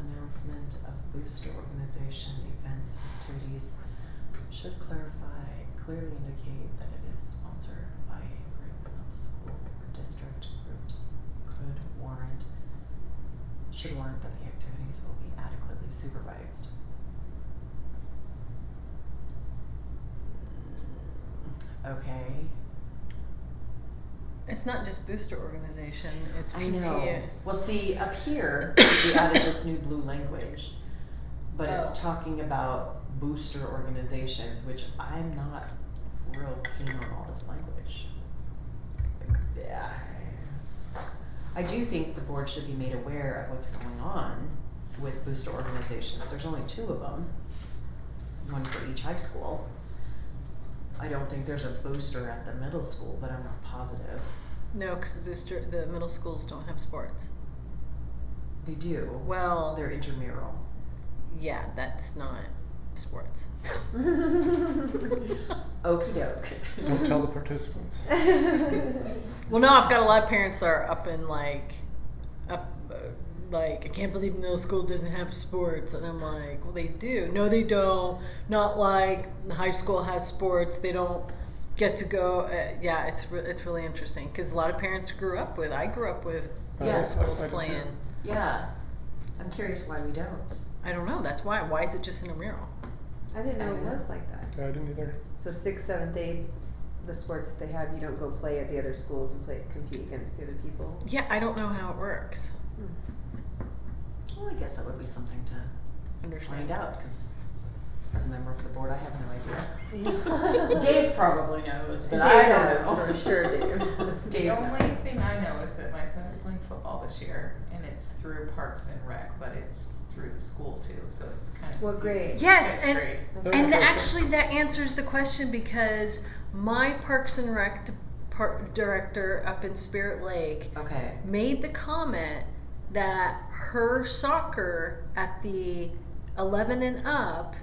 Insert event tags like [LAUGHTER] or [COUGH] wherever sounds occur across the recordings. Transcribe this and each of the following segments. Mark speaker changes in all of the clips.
Speaker 1: announcement of booster organization events and activities should clarify, clearly indicate that it is sponsored by a group, not the school or district. Groups could warrant, should warrant that the activities will be adequately supervised. Okay.
Speaker 2: It's not just booster organization, it's
Speaker 1: I know.
Speaker 2: PTA.
Speaker 1: Well, see, up
Speaker 2: [COUGHS]
Speaker 1: here, we added this new blue language, but
Speaker 2: Oh.
Speaker 1: it's talking about booster organizations, which I'm not real keen on all this language. Yeah. I do think the board should be made aware of what's going on with booster organizations. There's only two of them, one for each high school. I don't think there's a booster at the middle school, but I'm not positive.
Speaker 2: No, because the booster, the middle schools don't have sports.
Speaker 1: They do.
Speaker 2: Well,
Speaker 1: They're intramural.
Speaker 2: yeah, that's not
Speaker 1: [LAUGHS]
Speaker 2: sports.
Speaker 1: Okey doke.
Speaker 3: Don't tell
Speaker 1: [LAUGHS]
Speaker 3: the participants.
Speaker 2: Well, no, I've got a lot of parents that are up in like, up, uh, like I can't believe middle school doesn't have sports, and I'm like, well, they do. No, they don't. Not like high school has sports. They don't get to go. Uh, yeah, it's re- it's really interesting because a lot of parents grew up with. I grew up with
Speaker 1: Yeah.
Speaker 2: middle
Speaker 1: I-
Speaker 2: schools
Speaker 3: I did too.
Speaker 2: playing.
Speaker 1: Yeah. I'm curious why we don't.
Speaker 2: I don't know. That's why. Why is it just in a mural?
Speaker 4: I didn't know it
Speaker 1: Yeah.
Speaker 4: was like that.
Speaker 3: Yeah, I didn't either.
Speaker 5: So sixth, seventh, eighth, the sports that they have, you don't go play at the other schools and play, compete against the other people?
Speaker 2: Yeah, I don't know how it works.
Speaker 1: Well, I guess that would be something to
Speaker 2: Understand
Speaker 1: find out, cause as a member of the board, I have no idea.
Speaker 2: Yeah.
Speaker 1: Dave probably knows, but
Speaker 5: Dave
Speaker 1: I don't know.
Speaker 5: knows for sure, Dave.
Speaker 1: [LAUGHS] Dave
Speaker 6: The only
Speaker 1: knows.
Speaker 6: thing I know is that my son is playing football this year, and it's through Parks and Rec, but it's through the school too, so it's kind of.
Speaker 5: What grade?
Speaker 6: confusing.
Speaker 2: Yes,
Speaker 6: Sixth
Speaker 2: and-
Speaker 6: grade.
Speaker 2: And
Speaker 3: Okay.
Speaker 2: actually, that answers the question because my Parks and Rec par- director up in Spirit Lake
Speaker 1: Okay,
Speaker 2: made the comment that her soccer at the 11 and up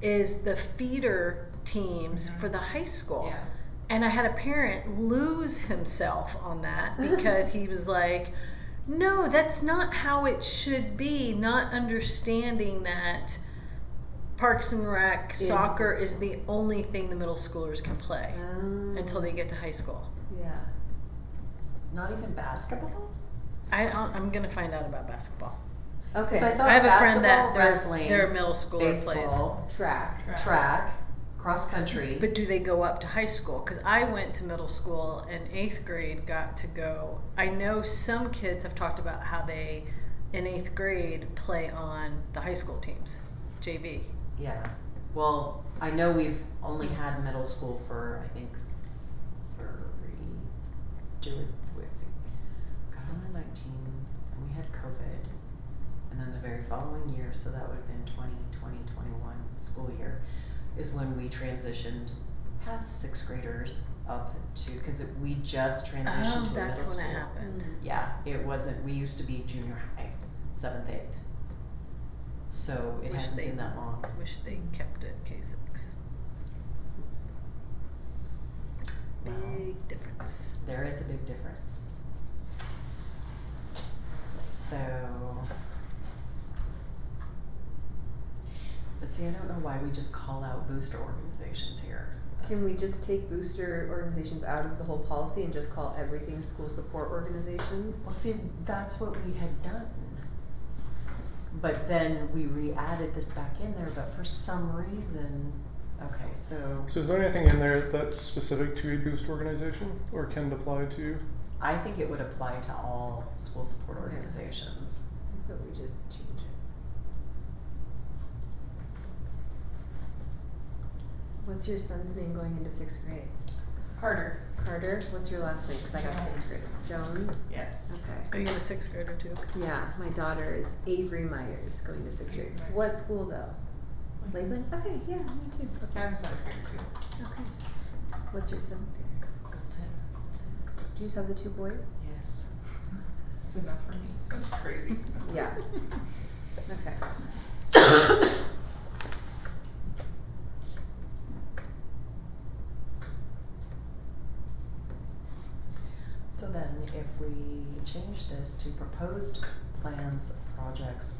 Speaker 2: is the feeder teams
Speaker 1: Mm-hmm.
Speaker 6: Mhm.
Speaker 2: for the high school.
Speaker 6: Yeah.
Speaker 2: And I had a parent lose himself
Speaker 1: [LAUGHS]
Speaker 2: on that because he was like, no, that's not how it should be, not understanding that Parks and Rec
Speaker 5: Is the
Speaker 2: soccer is
Speaker 5: same.
Speaker 2: the only thing the middle schoolers can play until they get to high school.
Speaker 5: Um, Yeah.
Speaker 1: not even basketball?
Speaker 2: I, I'll- I'm going to find out about basketball.
Speaker 5: Okay,
Speaker 1: 'Cause I
Speaker 5: so
Speaker 1: thought
Speaker 2: I have a friend
Speaker 1: basketball,
Speaker 2: that their-
Speaker 1: wrestling,
Speaker 2: their middle schooler plays.
Speaker 1: Baseball,
Speaker 5: track.
Speaker 6: Track.
Speaker 1: track, cross country.
Speaker 2: But do they go up to high school? Because I went to middle school and eighth grade got to go. I know some kids have talked about how they, in eighth grade, play on the high school teams, JV.
Speaker 1: Yeah, well, I know we've only had middle school for, I think, three, two, wait, see, got on in nineteen, and we had COVID. And then the very following year, so that would have been twenty, twenty, twenty-one school year, is when we transitioned half sixth graders up to, cause it, we just transitioned to a middle school. Mm-hmm.
Speaker 2: Oh, that's when it happened.
Speaker 1: Yeah, it wasn't, we used to be junior high, seventh, eighth. So it
Speaker 2: Wish
Speaker 1: hasn't
Speaker 2: they-
Speaker 1: been that long.
Speaker 2: Wish they kept it K six.
Speaker 1: Wow.
Speaker 2: Big difference.
Speaker 1: There is a big difference. So. But see, I don't know why we just call out booster organizations here.
Speaker 5: Can we just take booster organizations out of the whole policy and just call everything school support organizations?
Speaker 1: Well, see, that's what we had done. But then we re-added this back in there, but for some reason, okay, so
Speaker 3: So is there anything in there that's specific to a boost organization or can apply to?
Speaker 1: I think it would apply to all school support organizations.
Speaker 5: But we just change it. What's your son's name going into sixth grade?
Speaker 6: Carter,
Speaker 5: Carter, what's your last name? Cause I got sixth grade. Jones?
Speaker 6: yes.
Speaker 5: Okay.
Speaker 2: Are you a sixth grader too?
Speaker 5: Yeah, my daughter is Avery Myers, going to sixth grade.
Speaker 6: Avery.
Speaker 5: What school though? Lakeland? Okay, yeah, me too. Okay,
Speaker 6: I'm seventh grade too.
Speaker 5: okay. What's your son?
Speaker 6: Colton,
Speaker 5: Do you just have the two boys?
Speaker 6: yes. It's enough for me. That's crazy.
Speaker 5: Yeah.
Speaker 6: [LAUGHS]
Speaker 5: Okay.
Speaker 1: So then if we change this to proposed plans, projects,